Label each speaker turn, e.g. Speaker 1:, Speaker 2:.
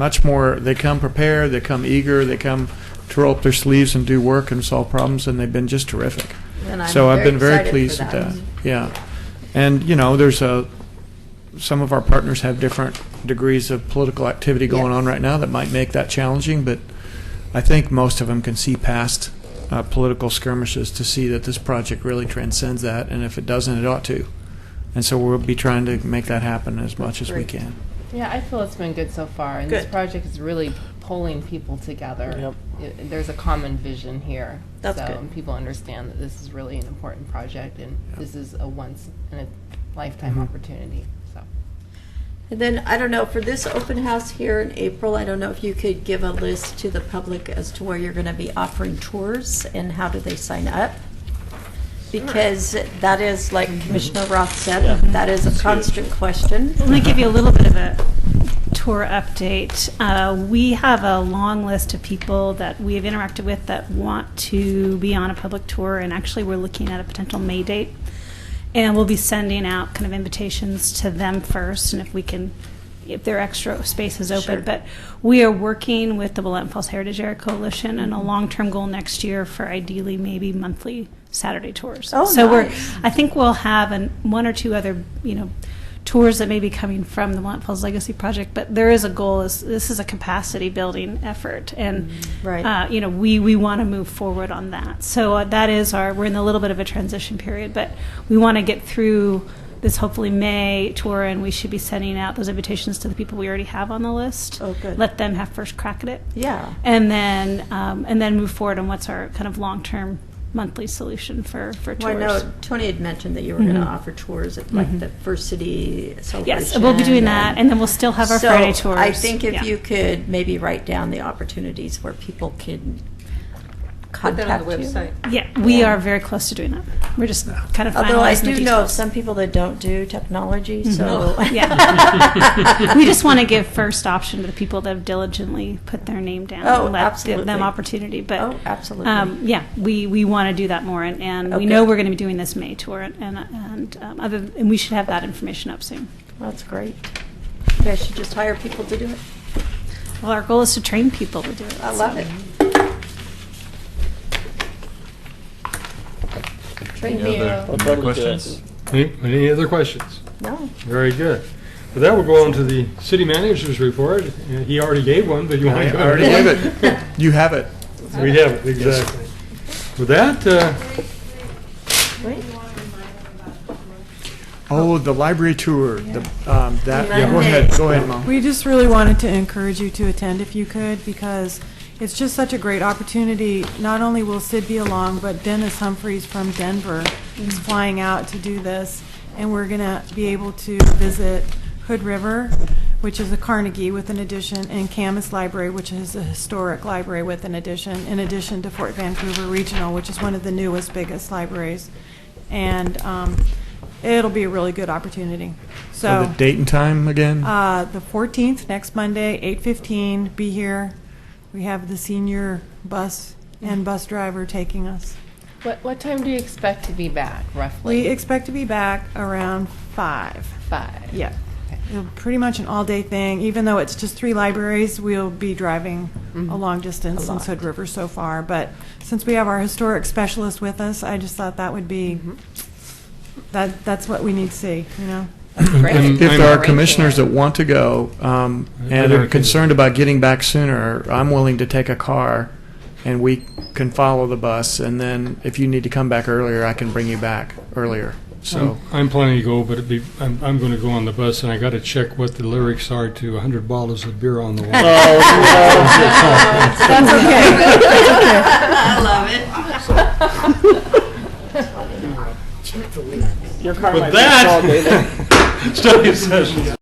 Speaker 1: much more, they come prepared, they come eager, they come to roll up their sleeves and do work and solve problems, and they've been just terrific.
Speaker 2: And I'm
Speaker 1: So I've been very
Speaker 2: excited
Speaker 1: pleased
Speaker 2: for
Speaker 1: with that. Yeah. And, you know, there's a, some of our partners have different degrees of political activity going
Speaker 2: Yes.
Speaker 1: on right now that might make that challenging, but I think most of them can see past uh, political skirmishes to see that this project really transcends that, and if it doesn't, it ought to. And so we'll be trying to make that happen as much as we
Speaker 2: great.
Speaker 1: can.
Speaker 3: Yeah, I feel it's been good so far, and this
Speaker 2: Good.
Speaker 3: project is really pulling people together. Yep. There's a common vision here.
Speaker 2: That's
Speaker 3: so,
Speaker 2: good.
Speaker 3: And people understand that this is really an important project, and this is a once in a lifetime
Speaker 4: Mm-hmm.
Speaker 3: opportunity. So,
Speaker 2: And then, I don't know, for this open house here in April, I don't know if you could give a list to the public as to where you're going to be offering tours and how do they sign up? Because that is, like
Speaker 5: Mm-hmm.
Speaker 2: Commissioner Roth
Speaker 6: Yeah.
Speaker 2: said, that is a constant question.
Speaker 5: Let me give you a little bit of a tour update. Uh, we have a long list of people that we have interacted with that want to be on a public tour, and actually, we're looking at a potential May date. And we'll be sending out kind of invitations to them first, and if we can, if their extra space is open.
Speaker 2: Sure.
Speaker 5: But we are working with the Willamette Falls Heritage Area Coalition and a
Speaker 2: Mm-hmm.
Speaker 5: long term goal next year for ideally maybe monthly Saturday tours.
Speaker 2: Oh,
Speaker 5: so we're,
Speaker 2: nice.
Speaker 5: I think we'll have an, one or two other, you know, tours that may be coming from the Mont Falls Legacy Project, but there is a goal. Is this is a capacity building effort, and
Speaker 2: Mm-hmm. Right.
Speaker 5: uh, you know we we want to move forward on that. So uh, that is our we're in a little bit of a transition period, but we want to get through this hopefully May tour, and we should be sending out those invitations to the people we already have on the list.
Speaker 2: Oh, good.
Speaker 5: Let them have first crack at it
Speaker 2: Yeah.
Speaker 5: and then um, and then move forward on what's our kind of long term monthly solution for for
Speaker 2: Well, I
Speaker 5: tours.
Speaker 2: know Tony had mentioned that you were going to
Speaker 5: Mhm.
Speaker 2: offer tours at like the First City celebration.
Speaker 5: Mm-hmm. Yes, we'll be doing that, and then we'll still have our
Speaker 2: So
Speaker 5: Friday tours.
Speaker 2: I think if
Speaker 5: Yeah.
Speaker 2: you could maybe write down the opportunities where people can
Speaker 4: Put that
Speaker 2: contact
Speaker 4: on the website.
Speaker 2: you.
Speaker 5: Yeah, we
Speaker 2: Yeah.
Speaker 5: are very close to doing that. We're just kind of
Speaker 2: Although I
Speaker 5: finalizing the
Speaker 2: do know of
Speaker 5: details.
Speaker 2: some people that don't do technology, so.
Speaker 5: Oh, yeah. We just want to give first option to the people that have diligently put their name down
Speaker 2: Oh,
Speaker 5: and let th-
Speaker 2: absolutely.
Speaker 5: them opportunity. But
Speaker 2: Oh, absolutely.
Speaker 5: Um, yeah, we, we want to do that more, and, and
Speaker 2: Okay.
Speaker 5: we know we're going to be doing this May tour, and and, and, um, other and we should have that information up soon.
Speaker 2: That's great. You guys should just hire people to do it.
Speaker 5: Well, our goal is to train people to do it.
Speaker 2: I
Speaker 5: so.
Speaker 2: love it. Train
Speaker 7: Any
Speaker 2: me.
Speaker 7: other
Speaker 6: I'll probably do it.
Speaker 7: questions?
Speaker 8: Any any other questions?
Speaker 2: No.
Speaker 8: Very good. With that, we'll go on to the city manager's report. Uh, He already gave one, but you want
Speaker 1: I
Speaker 8: to go?
Speaker 1: already gave it. You have it.
Speaker 8: We have it, exactly. With that, uh,
Speaker 2: Wait.
Speaker 1: Oh, the library tour, the, um, that,
Speaker 2: Yeah.
Speaker 1: go ahead, go ahead, Mo.
Speaker 9: We just really wanted to encourage you to attend if you could, because it's just such a great opportunity. Not only will Sid be along, but Dennis Humphreys from Denver is flying out to do this, and we're going to be able to visit Hood River, which is a Carnegie with an addition, and Camas Library, which is a historic library with an addition, in addition to Fort Vancouver Regional, which is one of the newest, biggest libraries. And um, it'll be a really good opportunity.
Speaker 1: So the date and time again?
Speaker 9: Uh, the 14th, next Monday, 8:15, be here. We have the senior bus and bus driver taking us.
Speaker 3: what what time do you expect to be back roughly?
Speaker 9: We expect to be back around 5.
Speaker 3: five.
Speaker 9: Yeah. It'll Pretty much an all-day thing, even though it's just three libraries, we'll be driving a long distance since Hood River so far. But since we have our historic specialist with us, I just thought that would be, that, that's what we need to see, you know?
Speaker 1: If
Speaker 3: Great.
Speaker 1: there
Speaker 3: I'm
Speaker 1: are
Speaker 3: arranging
Speaker 1: commissioners
Speaker 3: it.
Speaker 1: that want to go um,
Speaker 8: I
Speaker 1: and
Speaker 8: don't
Speaker 1: are concerned about getting back sooner, I'm willing to take a car and we can follow the bus. And then if you need to come back earlier, I can bring you back earlier. So,
Speaker 8: I'm- I'm planning to go, but it'd be, I'm, I'm going to go on the bus, and I got to check what the lyrics are to 100 bottles of beer on the wall.
Speaker 3: Oh, That's okay.
Speaker 2: I love it.
Speaker 8: With that, study session.